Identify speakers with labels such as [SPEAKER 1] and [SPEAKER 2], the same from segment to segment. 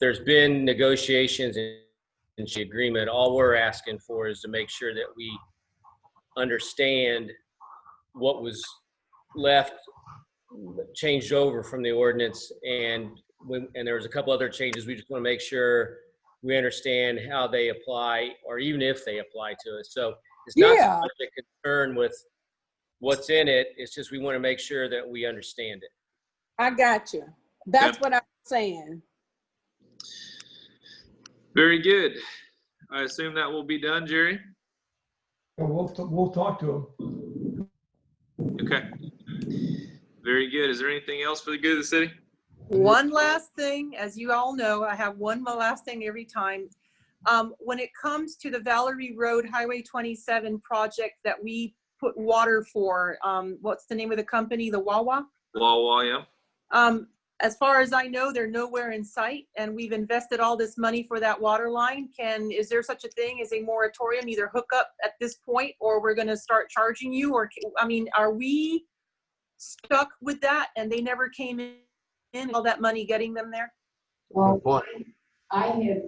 [SPEAKER 1] there's been negotiations and and the agreement. All we're asking for is to make sure that we understand what was left, changed over from the ordinance. And when, and there was a couple other changes. We just want to make sure we understand how they apply or even if they apply to us. So it's not so
[SPEAKER 2] Yeah.
[SPEAKER 1] much a concern with what's in it. It's just we want to make sure that we understand it.
[SPEAKER 2] I got you. That's what I'm saying.
[SPEAKER 3] Very good. I assume that will be done, Jerry?
[SPEAKER 4] Well, we'll, t- we'll talk to him.
[SPEAKER 3] Okay. Very good. Is there anything else for the good of the city?
[SPEAKER 5] One last thing, as you all know, I have one mo- last thing every time. Um, when it comes to the Valerie Road Highway 27 project that we put water for, um, what's the name of the company, the Wawa?
[SPEAKER 3] Wawa, yeah.
[SPEAKER 5] Um, as far as I know, they're nowhere in sight and we've invested all this money for that water line. Can, is there such a thing as a moratorium, either hook up at this point or we're gonna start charging you or, ca- I mean, are we stuck with that and they never came in, in all that money getting them there?
[SPEAKER 6] Well,
[SPEAKER 7] point.
[SPEAKER 6] I had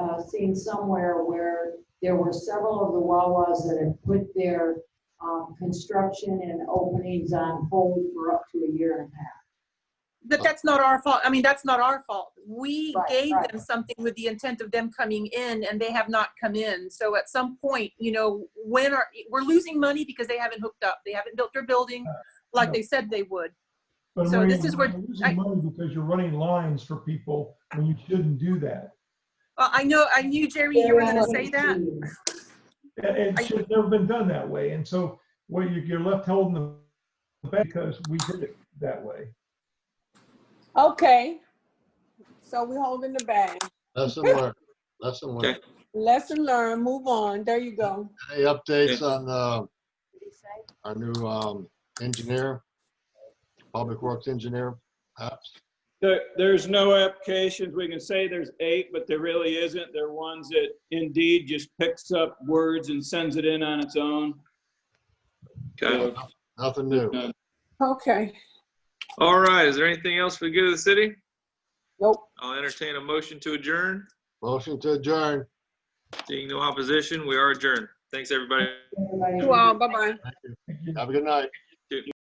[SPEAKER 6] uh, seen somewhere where there were several of the Wawas that had put their um, construction and openings on hold for up to a year and a half.
[SPEAKER 5] But that's not our fault. I mean, that's not our fault. We
[SPEAKER 6] Right,
[SPEAKER 5] gave
[SPEAKER 6] right.
[SPEAKER 5] them something with the intent of them coming in and they have not come in. So at some point, you know, when are, we're losing money because they haven't hooked up. They haven't built their building like they said they would.
[SPEAKER 4] But
[SPEAKER 5] So
[SPEAKER 4] Maria,
[SPEAKER 5] this is where-
[SPEAKER 4] You're
[SPEAKER 5] I-
[SPEAKER 4] losing money because you're running lines for people when you shouldn't do that.
[SPEAKER 5] Well, I know, I knew Jerry, you were gonna
[SPEAKER 6] They're
[SPEAKER 5] say that.
[SPEAKER 6] out of
[SPEAKER 4] And
[SPEAKER 5] I-
[SPEAKER 4] it should have never been done that way. And so, well, you- you're left holding the bag because we did it that way.
[SPEAKER 2] Okay. So we're holding the bag.
[SPEAKER 7] Lesson learned, lesson learned.
[SPEAKER 2] Lesson learned, move on. There you go.
[SPEAKER 7] Any updates
[SPEAKER 3] Yeah.
[SPEAKER 7] on uh,
[SPEAKER 6] teams.
[SPEAKER 7] our new um, engineer, public works engineer? Perhaps?
[SPEAKER 8] There, there's no applications. We can say there's eight, but there really isn't. There are ones that Indeed just picks up words and sends it in on its own.
[SPEAKER 3] Okay.
[SPEAKER 7] Nothing new.
[SPEAKER 2] Okay.
[SPEAKER 3] All right. Is there anything else for the good of the city?
[SPEAKER 2] Nope.
[SPEAKER 3] I'll entertain a motion to adjourn.
[SPEAKER 7] Motion to adjourn.
[SPEAKER 3] Seeing no opposition, we are adjourned. Thanks, everybody.
[SPEAKER 6] Everybody-
[SPEAKER 2] You all, bye-bye.
[SPEAKER 7] Have a good night.